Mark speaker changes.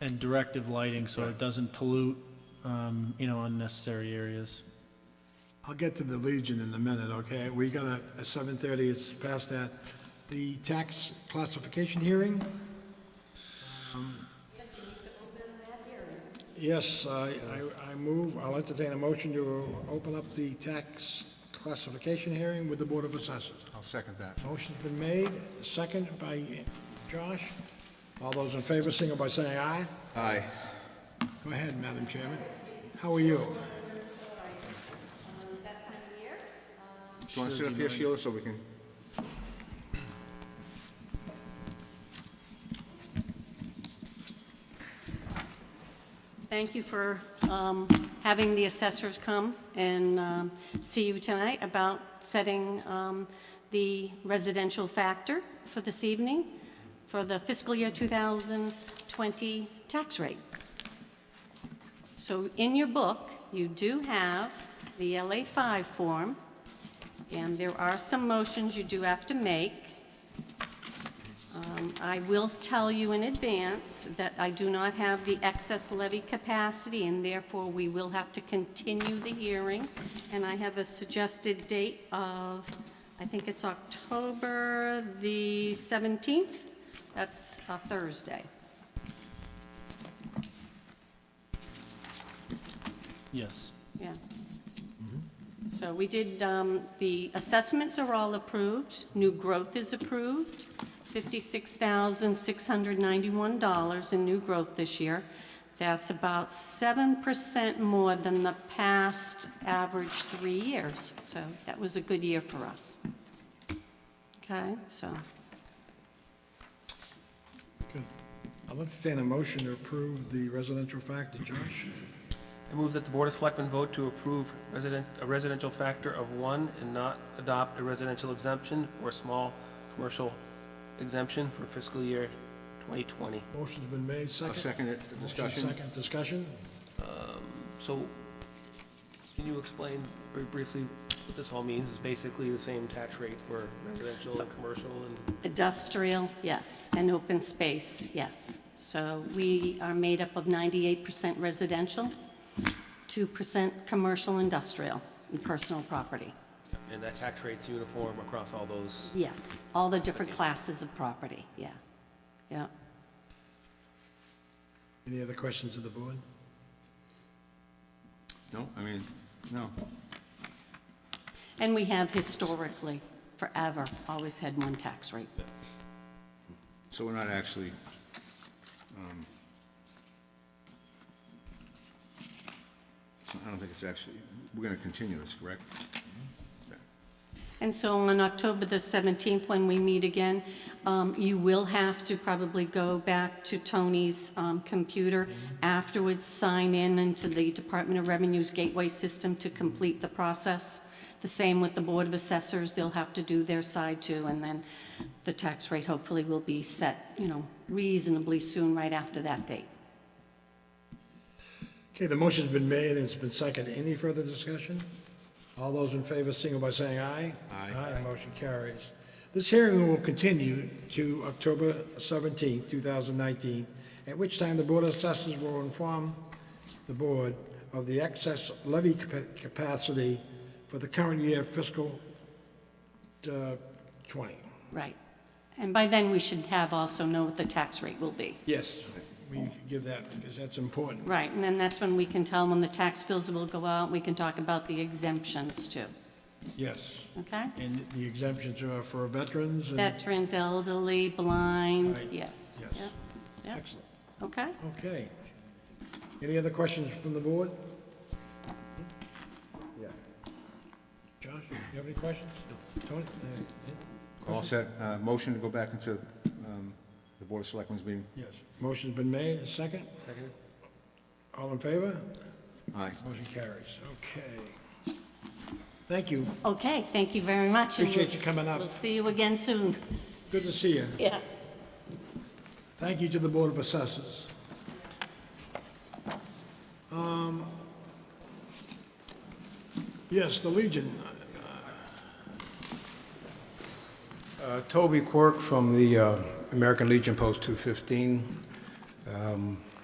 Speaker 1: and directive lighting, so it doesn't pollute, um, you know, unnecessary areas.
Speaker 2: I'll get to the Legion in a minute, okay? We got a, a seven thirty, it's past that. The tax classification hearing? um, Yes, I, I, I move, I'll entertain a motion to open up the tax classification hearing with the Board of Assessors.
Speaker 3: I'll second that.
Speaker 2: Motion's been made, second by Josh. All those in favor, signal by saying aye.
Speaker 3: Aye.
Speaker 2: Go ahead, Madam Chairman. How are you?
Speaker 3: Do you want to sit up here, Sheila, so we can,
Speaker 4: Thank you for um, having the assessors come and um, see you tonight about setting um, the residential factor for this evening for the fiscal year 2020 tax rate. So in your book, you do have the LA5 form, and there are some motions you do have to make. I will tell you in advance that I do not have the excess levy capacity, and therefore we will have to continue the hearing. And I have a suggested date of, I think it's October the 17th. That's a Thursday.
Speaker 1: Yes.
Speaker 4: Yeah. So we did, um, the assessments are all approved, new growth is approved, $56,691 in new growth this year. That's about 7% more than the past average three years, so that was a good year for us. Okay, so,
Speaker 2: Good. I'll entertain a motion to approve the residential factor, Josh.
Speaker 5: I move that the Board of Selectmen vote to approve resident, a residential factor of one and not adopt a residential exemption or a small commercial exemption for fiscal year 2020.
Speaker 2: Motion's been made,
Speaker 3: I'll
Speaker 2: second.
Speaker 3: second it,
Speaker 2: Motion,
Speaker 3: discussion.
Speaker 2: Second, discussion.
Speaker 5: So, can you explain very briefly what this all means? It's basically the same tax rate for residential and commercial and
Speaker 4: industrial, yes, and open space, yes. So we are made up of 98% residential, 2% commercial, industrial, and personal property.
Speaker 5: and that tax rate's uniform across all those.
Speaker 4: Yes, all the different classes of property, yeah. Yeah,
Speaker 2: Any other questions of the board?
Speaker 3: No, I mean, no.
Speaker 4: and we have historically, forever, always had one tax rate.
Speaker 3: So we're not actually, um, I don't think it's actually, we're going to continue this, correct?
Speaker 4: And so on October the 17th, when we meet again, um, you will have to probably go back to Tony's um, computer afterwards, sign in into the Department of Revenue's gateway system to complete the process. The same with the Board of Assessors, they'll have to do their side too, and then the tax rate hopefully will be set, you know, reasonably soon, right after that date.
Speaker 2: Okay, the motion's been made and it's been seconded. Any further discussion? All those in favor, signal by saying aye.
Speaker 3: Aye.
Speaker 2: Aye, motion carries. This hearing will continue to October seventeenth, two thousand nineteen, at which time the Board of Assessors will inform the board of the excess levy capa- capacity for the current year fiscal uh, twenty.
Speaker 4: Right. And by then, we should have also know what the tax rate will be.
Speaker 2: Yes, we can give that, because that's important.
Speaker 4: Right, and then that's when we can tell when the tax bills will go out, we can talk about the exemptions too,
Speaker 2: Yes,
Speaker 4: okay?
Speaker 2: and the exemptions are for veterans and...
Speaker 4: Veterans, elderly, blind,
Speaker 2: Right,
Speaker 4: yes.
Speaker 2: yes.
Speaker 4: Yep, yep,
Speaker 2: Excellent.
Speaker 4: Okay,
Speaker 2: Okay. Any other questions from the board? Josh, you have any questions? Tony?
Speaker 3: All set, Uh, motion to go back into um, the Board of Selectmen's meeting?
Speaker 2: Yes. Motion's been made, a second?
Speaker 5: Second?
Speaker 2: All in favor?
Speaker 3: Aye.
Speaker 2: Motion carries. Okay. Thank you.
Speaker 4: okay, thank you very much. and
Speaker 2: Appreciate
Speaker 4: we'll-
Speaker 2: you coming up.
Speaker 4: We'll see you again soon,
Speaker 2: Good to see you.
Speaker 4: yeah.
Speaker 2: Thank you to the Board of Assessors. Um, Yes, the Legion.
Speaker 6: Uh, Toby Quirk from the uh, American Legion Post 215. Um,